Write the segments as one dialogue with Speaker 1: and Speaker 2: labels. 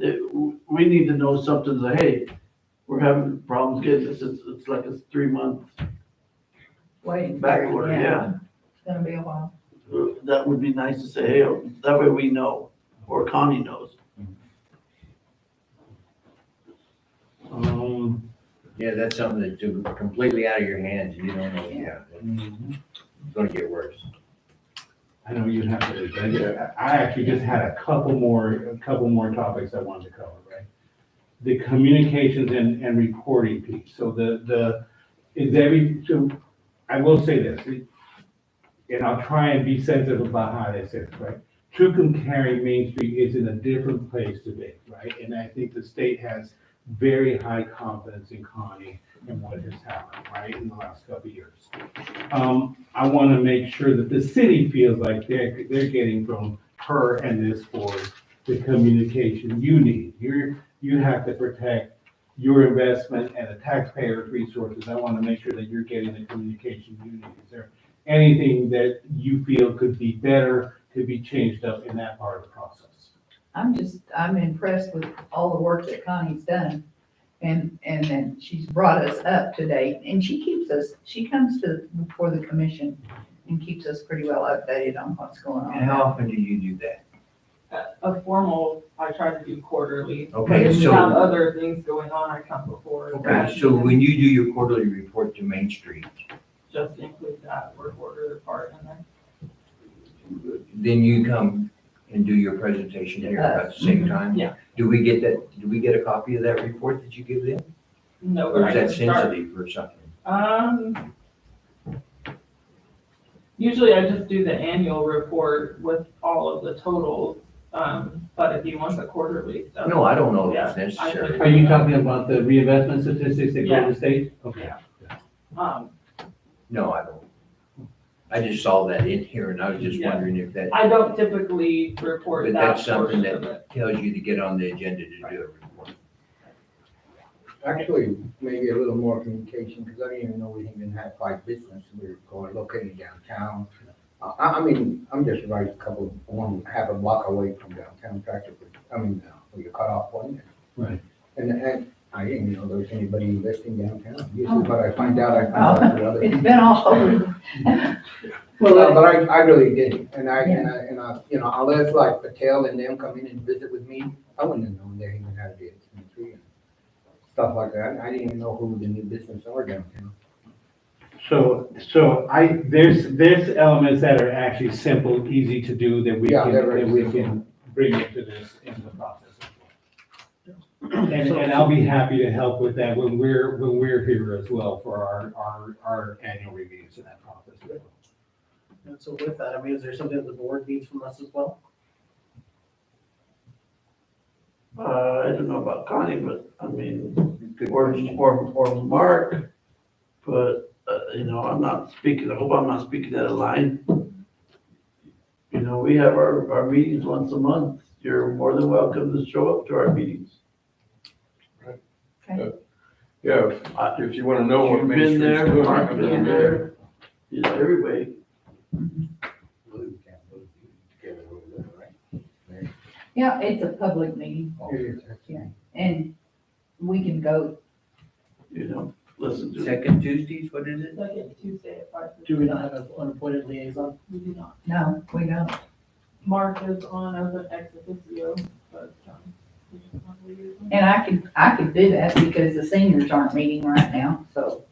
Speaker 1: it- we need to know something, say, hey, we're having problems getting this, it's, it's like a three month
Speaker 2: Waiting.
Speaker 1: back order, yeah.
Speaker 2: It's gonna be a while.
Speaker 1: That would be nice to say, hey, that way we know, or Connie knows.
Speaker 3: Um,
Speaker 4: Yeah, that's something that's ju- completely out of your hands, you don't know, yeah,
Speaker 3: I
Speaker 4: it's gonna get worse.
Speaker 3: know you'd have to, I did- I actually just had a couple more, a couple more topics I wanted to cover, right? The communications and, and recording piece, so the, the, is every, so, I will say this, it- and I'll try and be sensitive about how this is, right? Tucum County Main Street is in a different place today, right? And I think the state has very high confidence in Connie and what has happened, right, in the last couple of years. Um, I want to make sure that the city feels like they're, they're getting from her and this board the communication you need. You're, you have to protect your investment and the taxpayer's resources. I want to make sure that you're getting the communication you need. Is there anything that you feel could be better, could be changed up in that part of the process?
Speaker 2: I'm just, I'm impressed with all the work that Connie's done. And, and then she's brought us up to date and she keeps us, she comes to, before the commission and keeps us pretty well updated on what's going
Speaker 4: And
Speaker 2: on.
Speaker 4: how often do you do that?
Speaker 5: a formal, I try to do quarterly.
Speaker 4: Okay,
Speaker 5: If we have
Speaker 4: so,
Speaker 5: other things going on, I come before. that,
Speaker 4: okay, so when you do your quarterly report to Main Street,
Speaker 5: Just include that work order part in there.
Speaker 4: then you come and do your presentation here about the same time?
Speaker 5: Uh, Yeah.
Speaker 4: Do we get that, do we get a copy of that report that you give them?
Speaker 5: No, but
Speaker 4: Or
Speaker 5: I
Speaker 4: is
Speaker 5: can
Speaker 4: that
Speaker 5: start.
Speaker 4: sensitive or something?
Speaker 5: Um, usually I just do the annual report with all of the totals, um, but if you want the quarterly stuff.
Speaker 4: No, I don't know if
Speaker 5: Uh, Yeah,
Speaker 4: it's
Speaker 5: I-
Speaker 4: necessary.
Speaker 5: Are you talking
Speaker 3: about the reinvestment statistics
Speaker 5: that go to the
Speaker 3: state? Okay.
Speaker 5: Um,
Speaker 4: No, I don't. I just saw that in here and I was just
Speaker 5: Yeah.
Speaker 4: wondering if that
Speaker 5: I don't typically report
Speaker 4: But
Speaker 5: that
Speaker 4: that's something
Speaker 5: portion of it.
Speaker 4: that tells you to get on the agenda to do a report.
Speaker 6: Actually, maybe a little more communication, because I didn't even know we even had five business, we were going located downtown. I, I I mean, I'm just right a couple, one, half a block away from downtown practically, I mean, uh, where you cut off one.
Speaker 3: Right.
Speaker 6: And, and I didn't know there was anybody investing downtown, usually, but I find out, I find out through other.
Speaker 2: It's been all over.
Speaker 6: Well, but I, I really didn't, and I, and I, and I, you know, unless like Patel and them come in and visit with me, I wouldn't have known they even had a business in the tree and Stuff like that, I didn't even know who the new business are downtown.
Speaker 3: So, so I, there's, there's elements that are actually simple, easy to do that we
Speaker 6: Yeah,
Speaker 3: can,
Speaker 6: they're very
Speaker 3: that we
Speaker 6: simple.
Speaker 3: can bring into this, into the process. And, and I'll be happy to help with that when we're, when we're here as well for our, our, our annual reviews in that process.
Speaker 7: And so with that, I mean, is there something that the board needs from us as well?
Speaker 1: Uh, I don't know about Connie, but I mean,
Speaker 4: Good
Speaker 1: or,
Speaker 4: question.
Speaker 1: or, or Mark, but, uh, you know, I'm not speaking, I hope I'm not speaking out of line. You know, we have our, our meetings once a month. You're more than welcome to show up to our meetings.
Speaker 8: Yeah,
Speaker 1: I-
Speaker 8: if you want to know what
Speaker 1: You've
Speaker 8: Main
Speaker 1: been
Speaker 8: Street's
Speaker 1: there,
Speaker 8: doing.
Speaker 1: Mark's been there, you know, everybody.
Speaker 2: Yeah, it's a public meeting and we can go,
Speaker 1: you know, listen to.
Speaker 4: Second Tuesdays, what is it?
Speaker 5: Second Tuesday at five.
Speaker 7: Do we not have an unappointed liaison?
Speaker 5: We do not.
Speaker 2: no, we don't.
Speaker 5: Mark is on as an ex officio, but, um, we don't want to leave him.
Speaker 2: And I could, I could do that because the seniors aren't meeting right now, so.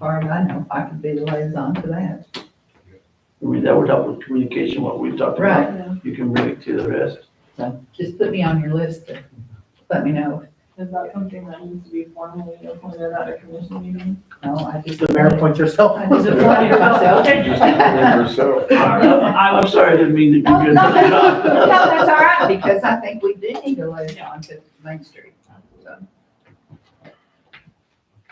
Speaker 2: Far as I know, I could be the liaison to that.
Speaker 1: I mean, that would help with communication, what we talked about.
Speaker 2: Right.
Speaker 1: You can bring it to the rest.
Speaker 2: So just put me on your list to let me know.
Speaker 5: Is that something that needs to be formally appointed at a commission meeting?
Speaker 2: No, I just.
Speaker 7: The mayor appoints herself.
Speaker 2: I just appointed myself.
Speaker 8: Just remember yourself.
Speaker 1: I'm sorry, I didn't mean to be.
Speaker 2: No, no,
Speaker 1: good.
Speaker 2: no, that's all right, because I think we do need a liaison to Main Street. so.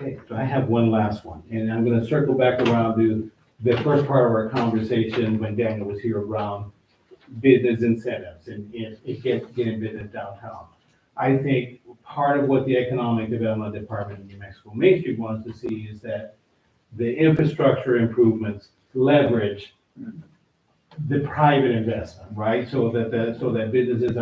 Speaker 3: Okay, so I have one last one, and I'm gonna circle back around to the first part of our conversation when Daniel was here around business incentives and, and and get, getting business downtown. I think part of what the Economic Development Department in New Mexico Main Street wants to see is that the infrastructure improvements leverage the private investment, right? So that, the so that businesses